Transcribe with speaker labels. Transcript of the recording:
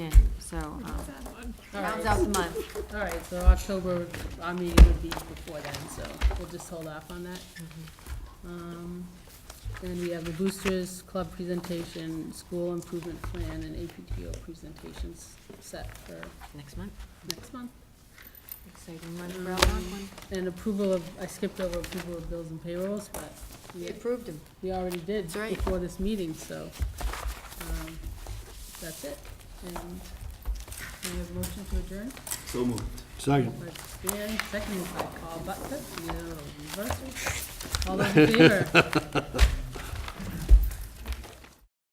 Speaker 1: so, um,
Speaker 2: All
Speaker 1: rounds
Speaker 2: right,
Speaker 1: out the month.
Speaker 2: all right, so October, our meeting would be before then, so we'll just hold off on that.
Speaker 1: Mm-hmm.
Speaker 2: Um, Then we have the boosters, club presentation, school improvement plan, and APTO presentations set for
Speaker 1: Next month,
Speaker 2: next month.
Speaker 1: exciting month for Algonquin.
Speaker 2: And approval of, I skipped over approval of bills and payrolls, but
Speaker 1: We
Speaker 2: we,
Speaker 1: approved him.
Speaker 2: we already did
Speaker 1: That's right.
Speaker 2: before this meeting, so, um, that's it. And we have a motion to adjourn?
Speaker 3: So moved.
Speaker 4: Second.
Speaker 2: By Dan, seconded by Carl Butler, no, reverse. All those in favor?